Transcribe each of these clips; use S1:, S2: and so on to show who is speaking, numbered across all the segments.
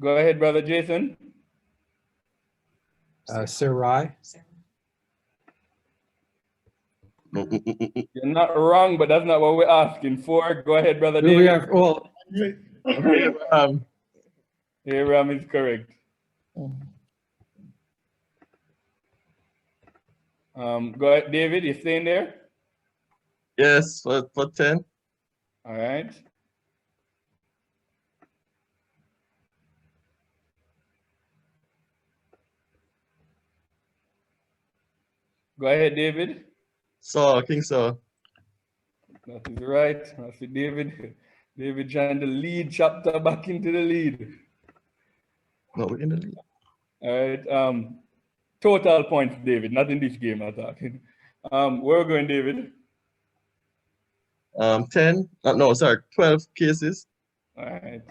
S1: Go ahead, brother Jason.
S2: Uh, Sarai,
S1: You're not wrong, but that's not what we're asking for. Go ahead, brother
S2: Do we
S1: David.
S2: have, well, um,
S1: Abraham is correct. Um, go ahead, David, you staying there?
S3: Yes, for, for 10.
S1: All right. Go ahead, David.
S3: Saul, King Saul.
S1: That is right. I see David. David trying to lead chapter back into the lead.
S3: No, we're in the lead.
S1: All right. Um, total points, David. Not in this game, I'm talking. Um, where we going, David?
S3: Um, 10. Uh, no, sorry, 12 cases.
S1: All right.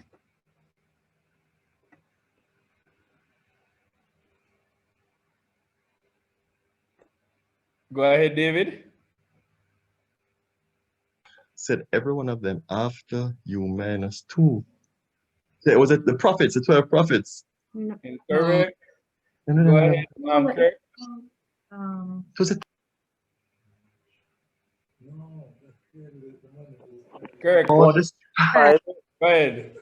S1: Go ahead, David.
S3: Said every one of them after you minus two. Yeah, was it the prophets, the 12 prophets?
S1: Incorrect.
S3: No, no,
S1: Go
S3: no, no, no.
S1: ahead, um, Kirk.
S4: Um,
S3: It was the
S1: Kirk,
S3: oh, this,
S1: go ahead.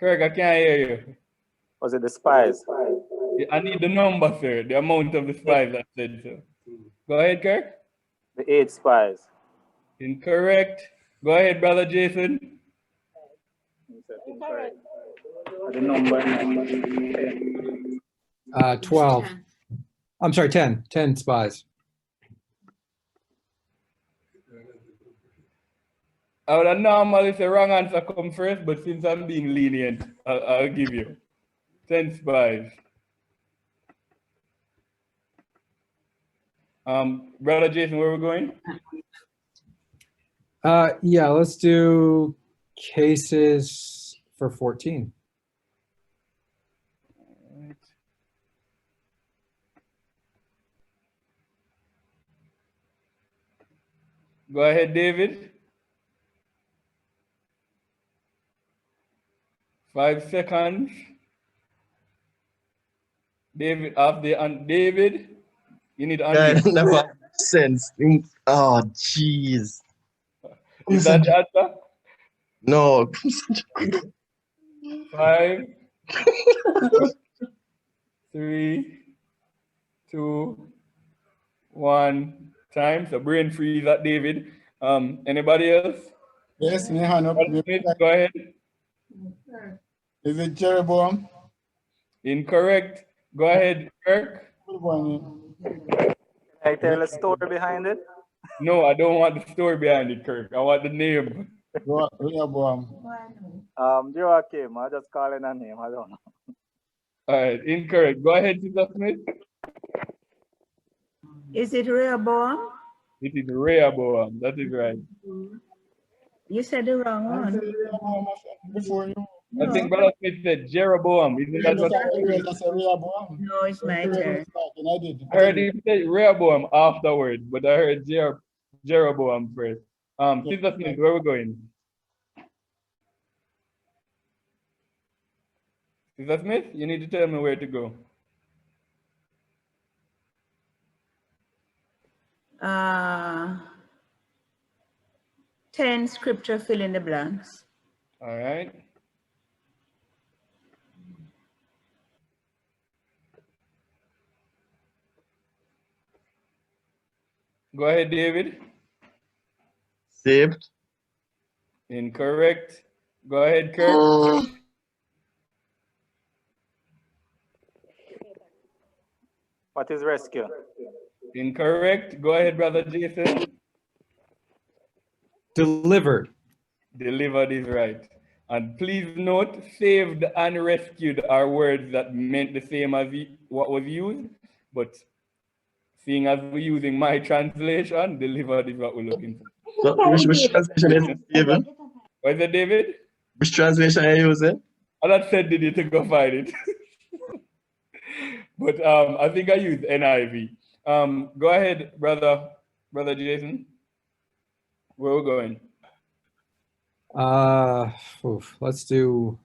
S1: Kirk, I can't hear you.
S5: Was it the spies?
S1: Yeah, I need the number, sir. The amount of the spies I said so. Go ahead, Kirk.
S5: The eight spies.
S1: Incorrect. Go ahead, brother Jason.
S5: Incorrect. The number.
S2: uh, 12, I'm sorry, 10, 10 spies.
S1: I would have normally say wrong answer come first, but since I'm being lenient, I'll, I'll give you ten spies. Um, brother Jason, where we going?
S2: Uh, yeah, let's do cases for 14.
S1: Alright. Go ahead, David. Five seconds. David, off the, un- David, you need to
S3: guy
S1: unmute.
S3: never sense. Oh, jeez.
S1: Is that the answer?
S3: No.
S1: Five, three, two, one. Time. So brain freeze at David. Um, anybody else?
S6: Yes, me hand up.
S1: Brother Smith, Go ahead.
S6: Is it Jeroboam?
S1: Incorrect. Go ahead, Kirk.
S6: Jeroboam,
S5: Can I tell a story behind it?
S1: No, I don't want the story behind it, Kirk. I want the name.
S6: Rehoboam.
S5: Um, Joachim, I just call in a name. I don't know.
S1: All right, incorrect. Go ahead, Sister Smith.
S4: Is it Rehoboam?
S1: It is Rehoboam. That is right.
S4: You said the wrong
S6: I said
S4: one.
S6: Rehoboam, I said Before you.
S1: I think
S4: No,
S1: Brother Smith said Jeroboam. Isn't
S6: You
S1: that
S6: look
S1: what
S6: at Israel, I said Rehoboam.
S4: no, it's my turn.
S6: And I did.
S1: I heard him say Rehoboam afterwards, but I heard Jer- Jeroboam first. Um,
S6: Yeah.
S1: Sister Smith, where we going? Sister Smith, you need to tell me where to go.
S4: Uh, 10 scripture fill in the blanks.
S1: All right. Go ahead, David.
S3: Saved.
S1: Incorrect. Go ahead, Kirk.
S3: Oh,
S5: What is rescue?
S1: Incorrect. Go ahead, brother Jason.
S2: Delivered.
S1: delivered is right. And please note, saved and rescued are words that meant the same as y- what was used, but seeing as we're using my translation, delivered is what we're looking for.
S3: Which, which translation is it, Stephen?
S1: Was it David?
S3: Which translation are you using?
S1: I not said did you to go find it. but um, I think I used NIV. Um, go ahead, brother, brother Jason. Where we going?
S2: Uh, oof, let's do